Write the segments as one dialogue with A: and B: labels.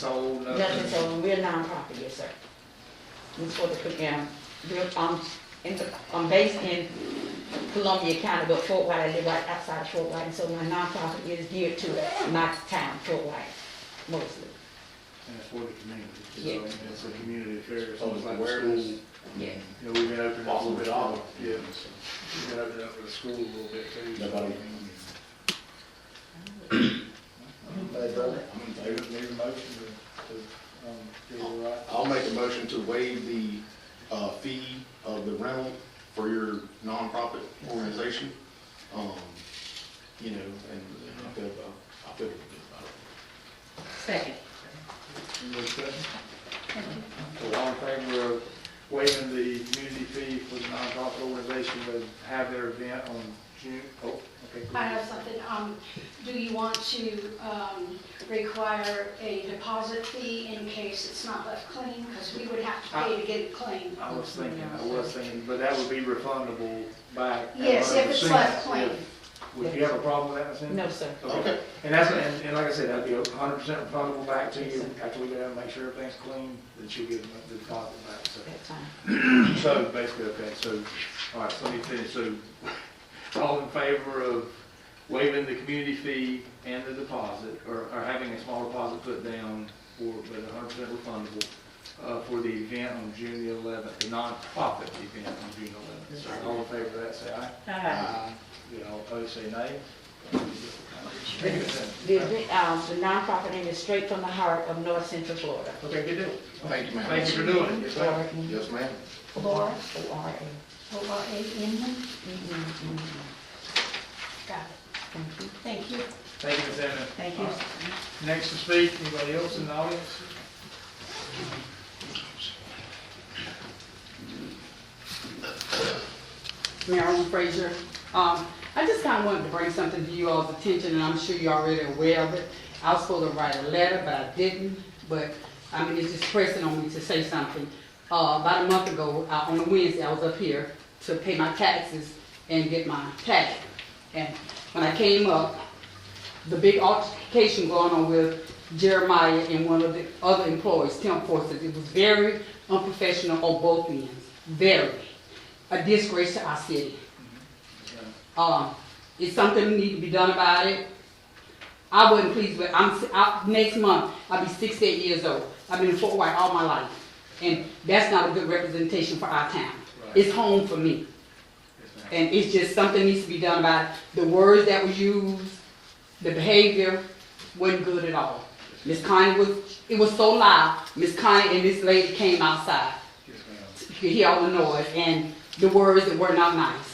A: sold,
B: Nothing,
A: nothing.
B: so we're a nonprofit, yes, sir. It's for the Cook County, we're, um, in, the- I'm based in Columbia County, but Fort White, I live right outside of Fort White, and so my nonprofit is geared to my town, Fort White, mostly,
A: And it's for the community,
B: Yeah.
A: so it's a community affair, it's
C: So
A: almost
C: it's
A: like
C: awareness.
A: awareness.
B: yeah.
A: You know, we've been opening up a little bit
C: Awesome.
A: off, yeah, we've been opening up for the school a little bit too. so-
C: Nobody-
A: Need a motion to, to, um, give it a right.
C: I'll make a motion to waive the uh, fee of the rental for your nonprofit organization. Um, You know, and I feel, I feel good about it.
B: Second.
A: Any more discussion? So all in favor of waiving the community fee for the nonprofit organization to have their event on June, oh, okay. go
D: I
A: ahead.
D: have something, um, do you want to, um, require a deposit fee in case it's not left clean? Because we would have to pay to get it clean.
A: I was thinking, I was thinking, but that would be refundable back. at
D: Yes, if it's
A: 100%.
D: left clean.
A: Would you have a problem with that, Ms. Henderson?
B: No, sir.
A: Okay, and that's, and, and like I said, that'd be a hundred percent refundable back to you after we go down and make sure everything's clean, that you get the deposit back, so.
B: That's fine.
A: So basically, okay, so, all right, so let me finish, so all in favor of waiving the community fee and the deposit, or, or having a small deposit put down for, but hundred percent refundable, uh, for the event on June the eleventh, the nonprofit event on June eleventh. So all in favor of that, say aye. Aye. You know, opposed, say nay.
B: The, event, um, the nonprofit name is straight from the heart of North Central Florida.
A: Okay, good deal.
C: Thank you, ma'am.
A: Thank you for doing it.
B: Florida.
C: Yes, ma'am.
D: Laura,
B: O R A.
D: O R A N,
B: Mhm, mhm.
D: got
B: mm-hmm. Thank you.
D: it, thank you.
A: Thank you, Ms. Hammond.
B: Thank you.
A: All right. Next to speak, anybody else in the audience?
E: Marilyn Frazier. Um, I just kind of wanted to bring something to you all's attention, and I'm sure you're already aware of it. I was supposed to write a letter, but I didn't, but, I mean, it's just pressing on me to say something. Uh, about a month ago, uh, on a Wednesday, I was up here to pay my taxes and get my tag. And when I came up, the big altercation going on with Jeremiah and one of the other employees, Tim Forster. It was very unprofessional on both ends, very. A disgrace to our city. Um, it's something need to be done about it. I wasn't pleased with, I'm, I, next month, I'll be sixty-eight years old. I've been in Fort White all my life, and that's not a good representation for our town.
A: Right.
E: It's home for me. And it's just something needs to be done about it. The words that were used, the behavior wasn't good at all. Miss Connie was, it was so loud, Miss Connie and this lady came outside.
A: Yes, ma'am.
E: You could hear all the noise and the words that were not nice.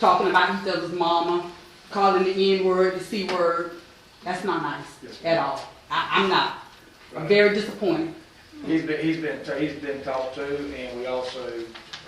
E: Talking about each other's mama, calling the N-word, the C-word, that's not nice at all. I, I'm not. I'm very disappointed.
A: He's been, he's been, he's been talked to, and we also,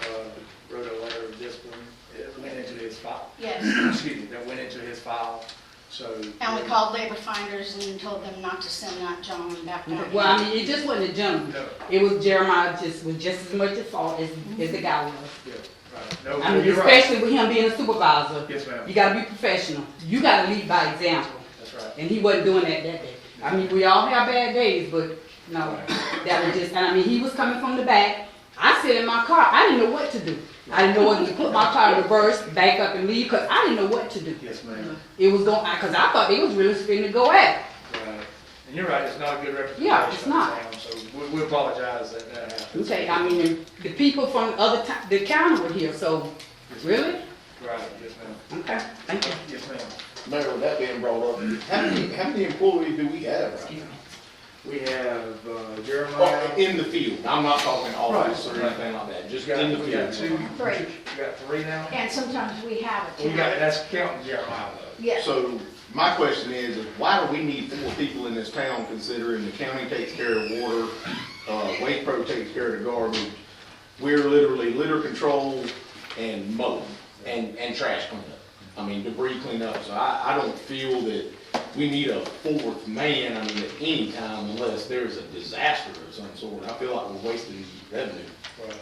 A: uh, wrote a letter of discipline, it went into his file,
D: Yes,
A: excuse me, that went into his file, so.
D: and we called labor finders and told them not to send that gentleman back down.
E: Well, I mean, it just wasn't a gentleman.
A: No.
E: It was Jeremiah just, was just as much at fault as, as the guy was.
A: Yeah, right, no,
E: I mean,
A: you're right,
E: especially with him being a supervisor.
A: Yes, ma'am.
E: You gotta be professional. You gotta lead by example.
A: that's right.
E: And he wasn't doing that that day. I mean, we all have bad days, but no, that was just, and I mean, he was coming from the back. I sit in my car, I didn't know what to do. I didn't know whether to put my car in reverse, back up and leave, cause I didn't know what to do.
A: Yes, ma'am,
E: It was going, I- cause I thought they was really spinning to go at. it.
A: right, and you're right, it's not a good representation.
E: Yeah, it's
A: of the
E: not.
A: town, So we, we apologize that that happened.
E: Okay, I mean, and the people from the other town, the county were here, so, really?
A: Right, yes, ma'am,
E: Okay, thank you.
A: yes, ma'am.
C: Mayor, with that being brought up, how many, how many employees do we have right now?
A: We have uh,
C: Well,
A: Jeremiah,
C: In the field, I'm not talking office or
A: Right, right.
C: anything like that,
A: we
C: just in the
A: got, we got two,
C: field.
A: we
D: Three,
A: got three now?
D: and sometimes we have it.
A: We got, that's counting Jeremiah though.
D: Yes,
C: So my question is, is why do we need four people in this town considering the county takes care of water, uh, Wake Pro takes care of the garbage? We're literally litter control and mowing and, and trash cleanup. I mean debris cleanup, so I, I don't feel that we need a fourth man, I mean, at any time unless there's a disaster of some sort. I feel like we're wasting revenue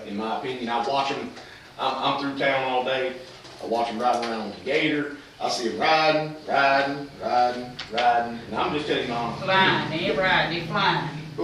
C: in my opinion. I watch them, I'm, I'm through town all day, I watch them ride around on the gator, I see them riding, riding, riding, riding, and I'm just telling you, Mom,
E: Flying, they ain't riding, they flying.